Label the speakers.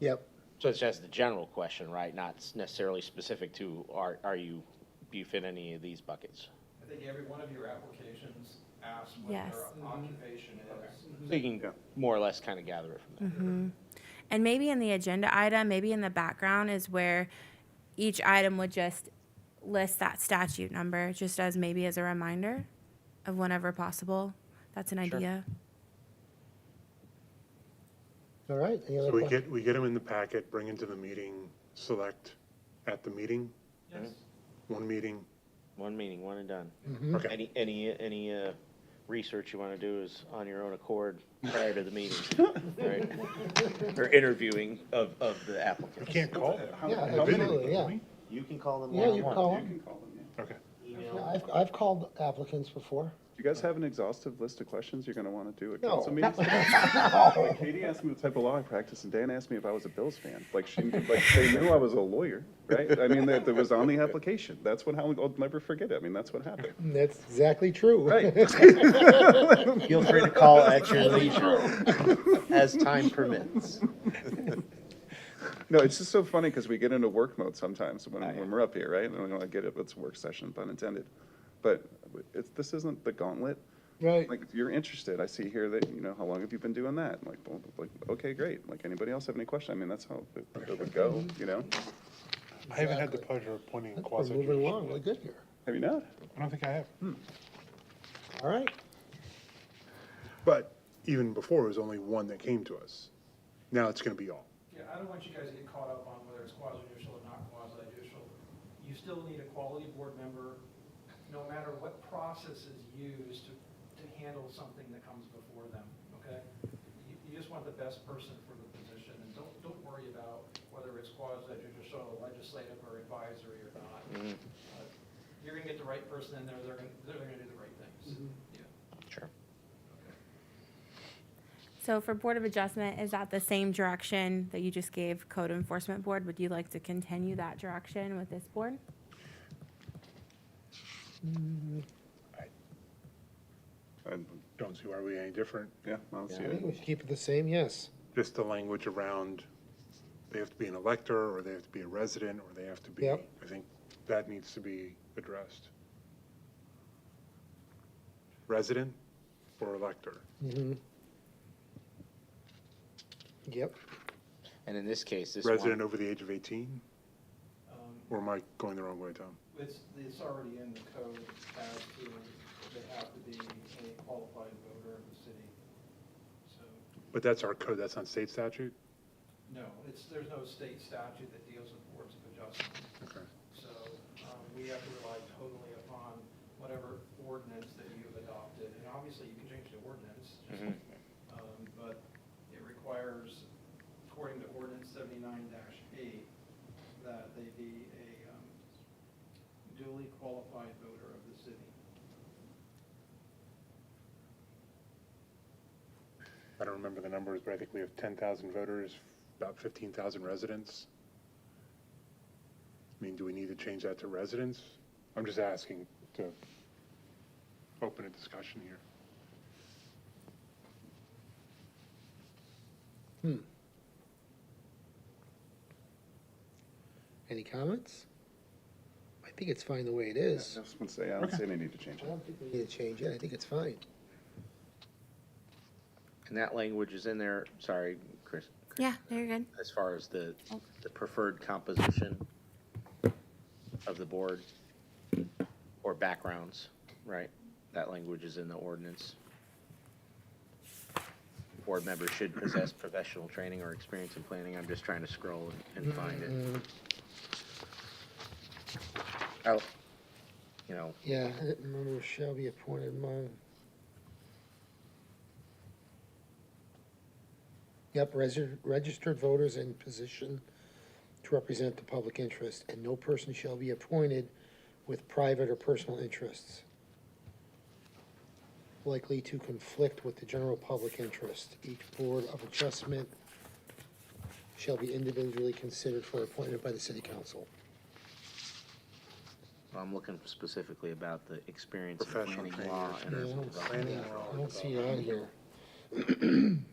Speaker 1: Yep.
Speaker 2: So it's just the general question, right? Not s- necessarily specific to, are, are you, do you fit any of these buckets?
Speaker 3: I think every one of your applications asks what
Speaker 4: Yes.
Speaker 3: their occupation is.
Speaker 2: So you can more or less kind of gather it from
Speaker 1: Mm-hmm.
Speaker 2: there.
Speaker 4: And maybe in the agenda item, maybe in the background is where each item would just list that statute number, just as maybe as a reminder of whenever possible. That's an
Speaker 2: Sure.
Speaker 4: idea.
Speaker 1: All right. Any other
Speaker 5: So we
Speaker 1: que-
Speaker 5: get, we get them in the packet, bring into the meeting, select at the meeting,
Speaker 3: Yes.
Speaker 5: one meeting.
Speaker 2: One meeting, one and done.
Speaker 1: Hmm.
Speaker 5: Okay,
Speaker 2: Any, any, any, uh, research you want to do is on your own accord prior to the meeting, right? Or interviewing of, of the
Speaker 5: you
Speaker 2: applicant.
Speaker 5: can't call.
Speaker 1: Yeah,
Speaker 5: I've been in
Speaker 1: absolutely,
Speaker 5: it,
Speaker 1: yeah.
Speaker 5: haven't
Speaker 2: You can call them
Speaker 1: Yeah, you
Speaker 2: one-on-one.
Speaker 1: call 'em.
Speaker 5: Okay.
Speaker 1: Yeah, I've, I've called applicants before.
Speaker 6: Do you guys have an exhaustive list of questions you're gonna wanna do at
Speaker 1: No.
Speaker 6: council meetings? Like Katie asked me what type of law I practice, and Dan asked me if I was a Bills fan. Like, she, like, they knew I was a lawyer, right? I mean, that, that was on the application. That's what, how, I'll never forget it. I mean, that's what happened.
Speaker 1: Mm, That's exactly true.
Speaker 6: Right.
Speaker 2: Feel free to call at your leisure, as time permits.
Speaker 6: No, it's just so funny, because we get into work mode sometimes when, when we're up here, right? And we don't get it, it's a work session, pun intended. But it's, this isn't the gauntlet.
Speaker 1: Right.
Speaker 6: Like, if you're interested, I see here that, you know, how long have you been doing that? I'm Like, well, like, okay, great. Like, anybody else have any question? I mean, that's how it it would go, you know?
Speaker 5: I haven't had the pleasure of pointing in
Speaker 1: We're
Speaker 5: quasi.
Speaker 1: moving Hmm. along. We're good here.
Speaker 6: Have you not?
Speaker 5: I don't think I have.
Speaker 1: All right.
Speaker 5: But even before, it was only one that came to us. Now it's gonna be all.
Speaker 3: Yeah, I don't want you guys to get caught up on whether it's quasi judicial or not quasi judicial. You still need a quality board member, no matter what process is used to, to handle something that comes before them, okay? You, you just want the best person for the position, and don't, don't worry about whether it's quasi judicial, legislative, or advisory or not. Uh, You're gonna get the right person in there, they're gonna, they're gonna do the right things. Yeah.
Speaker 2: Sure.
Speaker 4: So for Board of Adjustment, is that the same direction that you just gave Code Enforcement Board? Would you like to continue that direction with this board?
Speaker 6: I
Speaker 5: Don't see why we're any different.
Speaker 6: yeah, I don't see
Speaker 1: I think
Speaker 6: it.
Speaker 1: we should keep it the same, yes.
Speaker 5: Just the language around, they have to be an elector, or they have to be a resident, or they have to be, I
Speaker 1: Yep.
Speaker 5: think that needs to be addressed. Resident or elector?
Speaker 1: Mhm. Yep.
Speaker 2: And in this case, this one.
Speaker 5: Resident over the age of 18?
Speaker 3: Um,
Speaker 5: Or am I going the wrong way, Tom?
Speaker 3: It's, it's already in the code as to, they have to be a qualified voter of the city. So,
Speaker 5: But that's our code, that's not state statute?
Speaker 3: no, it's, there's no state statute that deals with boards of adjustment.
Speaker 5: Okay.
Speaker 3: So, um, we have to rely totally upon whatever ordinance that you have adopted. And obviously, you can change the ordinance, just, um, but it requires, according to ordinance seventy-nine eight, that they be a um, duly qualified voter of the city.
Speaker 5: I don't remember the numbers, but I think we have 10,000 voters, about 15,000 residents. I mean, do we need to change that to residents? I'm just asking to open a discussion here.
Speaker 1: Any comments? I think it's fine the way it is.
Speaker 6: Just want to say, I don't see any need to change
Speaker 1: I
Speaker 6: it.
Speaker 1: don't think we need to change it. I think it's fine.
Speaker 2: And that language is in there, sorry, Chris,
Speaker 4: Yeah, no, you're good.
Speaker 2: as far as the, the preferred composition of the board or backgrounds, right? That language is in the ordinance. Board members should possess professional training or experience in planning. I'm just trying to scroll and and find
Speaker 1: Mm-hmm.
Speaker 2: it. Oh, you know,
Speaker 1: Yeah, I didn't remember shall be appointed among. Yep, resi- registered voters in position to represent the public interest, and no person shall be appointed with private or personal interests likely to conflict with the general public interest. Each board of adjustment shall be individually considered for appointment by the city council.
Speaker 2: I'm looking specifically about the experience in
Speaker 5: Professional
Speaker 2: planning
Speaker 5: training or
Speaker 2: law and
Speaker 1: Yeah, I
Speaker 2: urban
Speaker 1: don't see
Speaker 2: development.
Speaker 1: that. I don't see it on here.